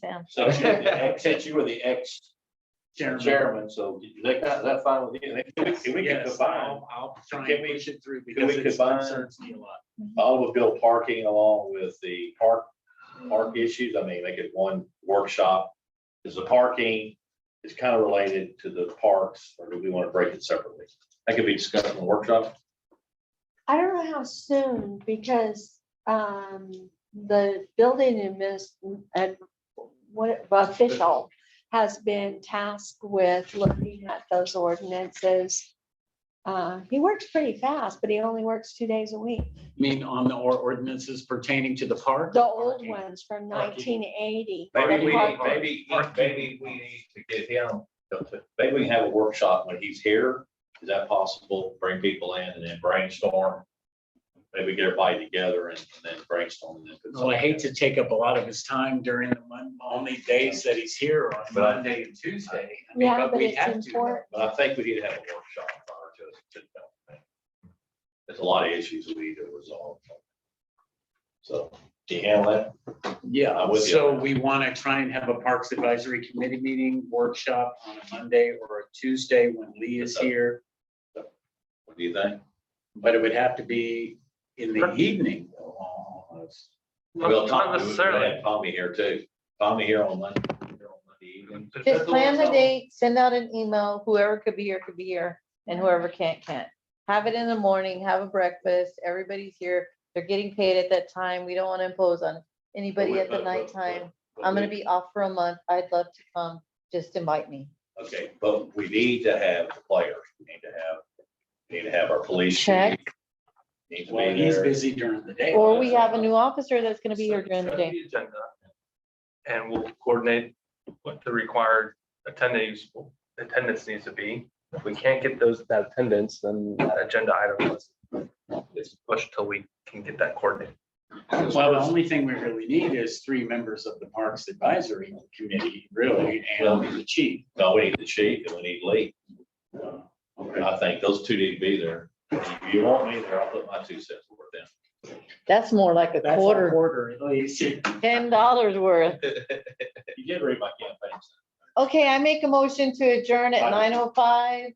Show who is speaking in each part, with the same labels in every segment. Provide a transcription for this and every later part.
Speaker 1: down.
Speaker 2: So she's the ex- since you were the ex chairman, so is that, is that fine with you? Can we- Can we get
Speaker 3: Yes,
Speaker 2: combine
Speaker 3: I'll I'll try
Speaker 2: Can
Speaker 3: and
Speaker 2: we-
Speaker 3: push it through
Speaker 2: we
Speaker 3: because it
Speaker 2: combine-
Speaker 3: concerns me a lot.
Speaker 2: automobile parking along with the park, park issues? I mean, make it one workshop. Is the parking, is kind of related to the parks, or do we want to break it separately? That could be discussed in the workshop.
Speaker 4: I don't know how soon, because, um, the building adminis, and what, official has been tasked with looking at those ordinances. Uh, he works pretty fast, but he only works two days a week.
Speaker 3: I mean, on the or- ordinances pertaining to the park?
Speaker 4: The old
Speaker 3: Parking.
Speaker 4: ones from
Speaker 3: Parking.
Speaker 4: nineteen eighty.
Speaker 2: Maybe we,
Speaker 4: Parking.
Speaker 2: maybe, maybe we need to get him, maybe we can have a workshop when he's here. Is that possible? Bring people in and then brainstorm. Maybe get everybody together and and then brainstorm. and then put
Speaker 3: Well, I hate to take up a lot of his time during the mon- only days that he's here on
Speaker 2: But I-
Speaker 3: Monday and Tuesday. I mean,
Speaker 4: Yeah, but
Speaker 3: we
Speaker 4: it's
Speaker 3: have to.
Speaker 4: important.
Speaker 2: But I think we need to have a workshop prior to us to develop that. There's a lot of issues we need to resolve. So, do you handle that? I'm
Speaker 3: Yeah,
Speaker 2: with you.
Speaker 3: so we want to try and have a Parks Advisory Committee meeting workshop on a Monday or a Tuesday when Lee is here.
Speaker 2: What do you think?
Speaker 3: But it would have to be in the evening. though, almost.
Speaker 2: uh, Well,
Speaker 5: Not
Speaker 2: Tom,
Speaker 5: not
Speaker 2: we would
Speaker 5: necessarily.
Speaker 2: have Tommy here too. Tommy here on Monday. here on Monday evening.
Speaker 1: Just plan the date, send out an email, whoever could be here could be here, and whoever can't, can't. Have it in the morning, have a breakfast, everybody's here, they're getting paid at that time, we don't want to impose on anybody
Speaker 2: But-
Speaker 1: at the
Speaker 2: but- but-
Speaker 1: nighttime.
Speaker 2: but
Speaker 1: I'm gonna
Speaker 2: we-
Speaker 1: be off for a month, I'd love to come, just invite me.
Speaker 2: Okay, but we need to have the players. We need to have, we need to have our police.
Speaker 1: Check.
Speaker 2: Need to
Speaker 3: Well,
Speaker 2: be
Speaker 3: he's
Speaker 2: there.
Speaker 3: busy during the day.
Speaker 1: Or we have a new officer that's gonna be here during the day.
Speaker 5: Agenda, And we'll coordinate what the required attendees, attendance needs to be. If we can't get those, that attendance, then that agenda item is- is pushed till we can get that coordinated.
Speaker 3: Well, the only thing we really need is three members of the Parks Advisory Committee, really,
Speaker 2: Well-
Speaker 3: and the chief.
Speaker 2: No, we need the chief and we need Lee.
Speaker 3: Uh,
Speaker 2: And I think those two need to be there. If you want me there, I'll put my two cents worth in.
Speaker 1: That's more like a
Speaker 3: That's a
Speaker 1: quarter,
Speaker 3: Quarter, at least. You
Speaker 1: ten dollars worth.
Speaker 2: You did read my campaign.
Speaker 1: Okay, I make a motion to adjourn at nine oh five,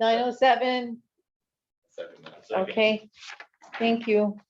Speaker 1: nine oh seven,
Speaker 2: statement. Second.
Speaker 1: okay? Thank you.